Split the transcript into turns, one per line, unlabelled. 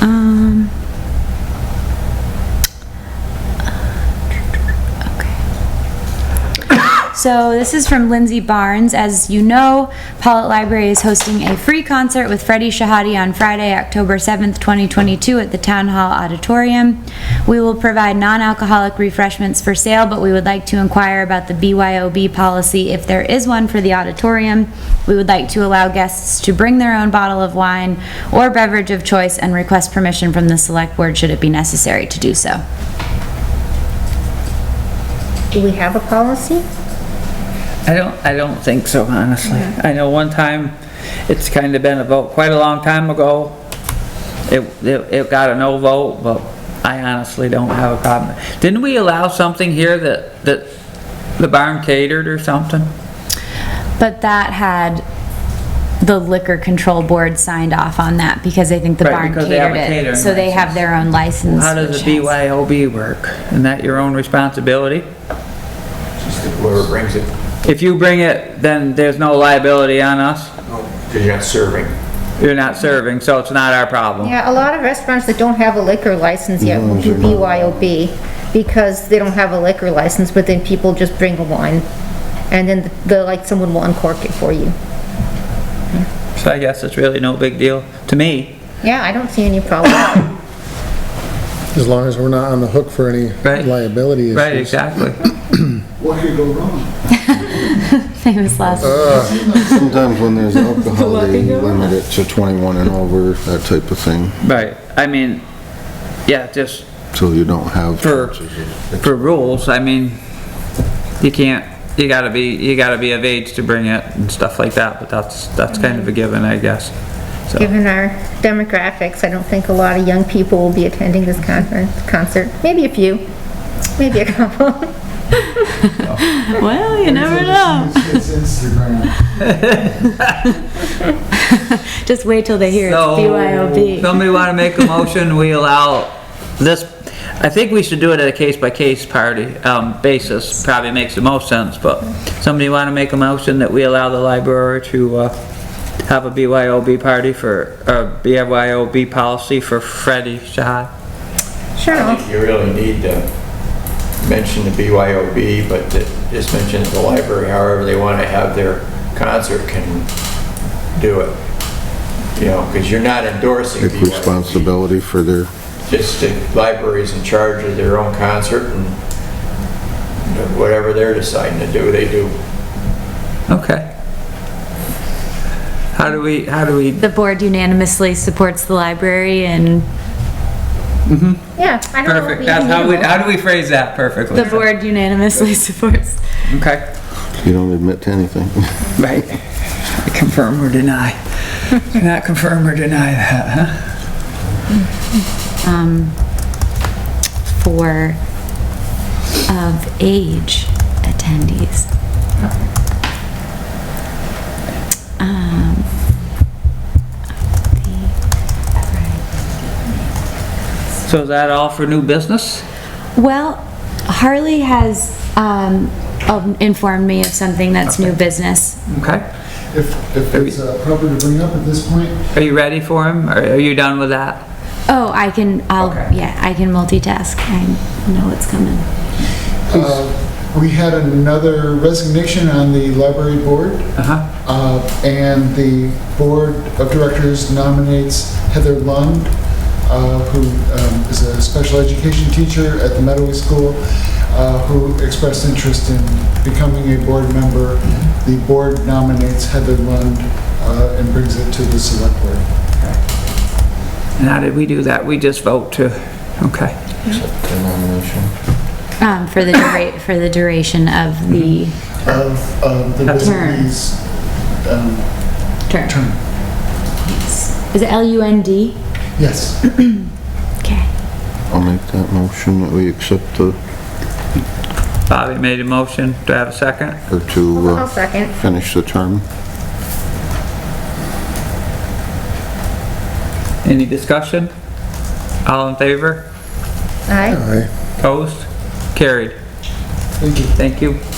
um, uh, So this is from Lindsay Barnes. As you know, Paulette Library is hosting a free concert with Freddie Shahadi on Friday, October 7th, 2022 at the Town Hall Auditorium. We will provide non-alcoholic refreshments for sale, but we would like to inquire about the BYOB policy if there is one for the auditorium. We would like to allow guests to bring their own bottle of wine or beverage of choice and request permission from the select board should it be necessary to do so.
Do we have a policy?
I don't, I don't think so, honestly. I know one time, it's kind of been a vote, quite a long time ago. It, it it got a no vote, but I honestly don't have a problem. Didn't we allow something here that, that the barn catered or something?
But that had the liquor control board signed off on that because I think the
Right,
barn
because they have
catered
a
it.
catering
So they have
license.
their own license.
How does
which
the
has-
BYOB work? Isn't that your own responsibility?
Just whoever brings it,
If you bring it, then there's no liability on us.
because you're not serving.
You're not serving, so it's not our problem.
Yeah, a lot of restaurants that don't have a liquor license yet will do BYOB because they don't have a liquor license, but then people just bring the wine. And then the, like, someone will uncork it for you.
So I guess it's really no big deal to me,
Yeah, I don't see any problem.
As long as we're not on the hook for any
right?
liability issues.
Right, exactly.
What could go wrong?
Famous last.
Uh-huh.
Sometimes when there's alcohol, they limit it to 21 and over, that type of thing,
Right, I mean, yeah, just
so you don't have.
For-
It's-
for rules, I mean, you can't, you gotta be, you gotta be of age to bring it and stuff like that, but that's, that's kind of a given, I guess. So,
Given our demographics, I don't think a lot of young people will be attending this conference, concert. Maybe a few, maybe a couple.
Well, you never know.
It's Instagram.
Just wait till they hear it's
So,
BYOB.
Somebody wanna make a motion, we allow this, I think we should do it at a case-by-case party, um, basis, probably makes the most sense, but somebody wanna make a motion that we allow the library to, uh, have a BYOB party for, uh, BYOB policy for Freddie Shahad?
Sure,
I
I'll-
think you really need to mention the BYOB, but to- just mention that the library, however they want to have their concert can do it. You know, because you're not endorsing
Take
BYOB.
responsibility for their,
Just the library's in charge of their own concert and whatever they're deciding to do, they do.
Okay. How do we, how do we,
The board unanimously supports the library and
yeah. I don't know if
perfect,
we
that's
even
how we,
know.
how do we phrase that perfectly?
the board unanimously supports.
Okay,
you don't admit to anything.
right. Confirm or deny. Not confirm or deny that, huh?
um, for of age attendees. Um, the-
So is that all for new business?
Well, Harley has um, um, informed me of something that's new business.
Okay.
If, if it's uh, proper to bring up at this point,
Are you ready for him? Are are you done with that?
Oh, I can, I'll,
Okay.
yeah, I can multitask. I know what's coming.
uh, we had another resignation on the library board,
Uh-huh.
uh, and the board of directors nominates Heather Lund, uh, who um, is a special education teacher at the Meadowy School, uh, who expressed interest in becoming a board member. The board nominates Heather Lund uh, and brings it to the select board.
And how did we do that? We just vote to, okay.
The nomination.
Um, For the, dura- for the duration of the
of um, the
That's-
Wizards um,
term.
term.
Is it L-U-N-D?
Yes.
Okay.
I'll make that motion that we accept the,
Bobby made a motion. Do I have a second?
or to
I'll
uh,
second.
finish the term.
Any discussion? All in favor?
Aye.
Aye.
Opposed? Carried.
Thank you.
Thank you.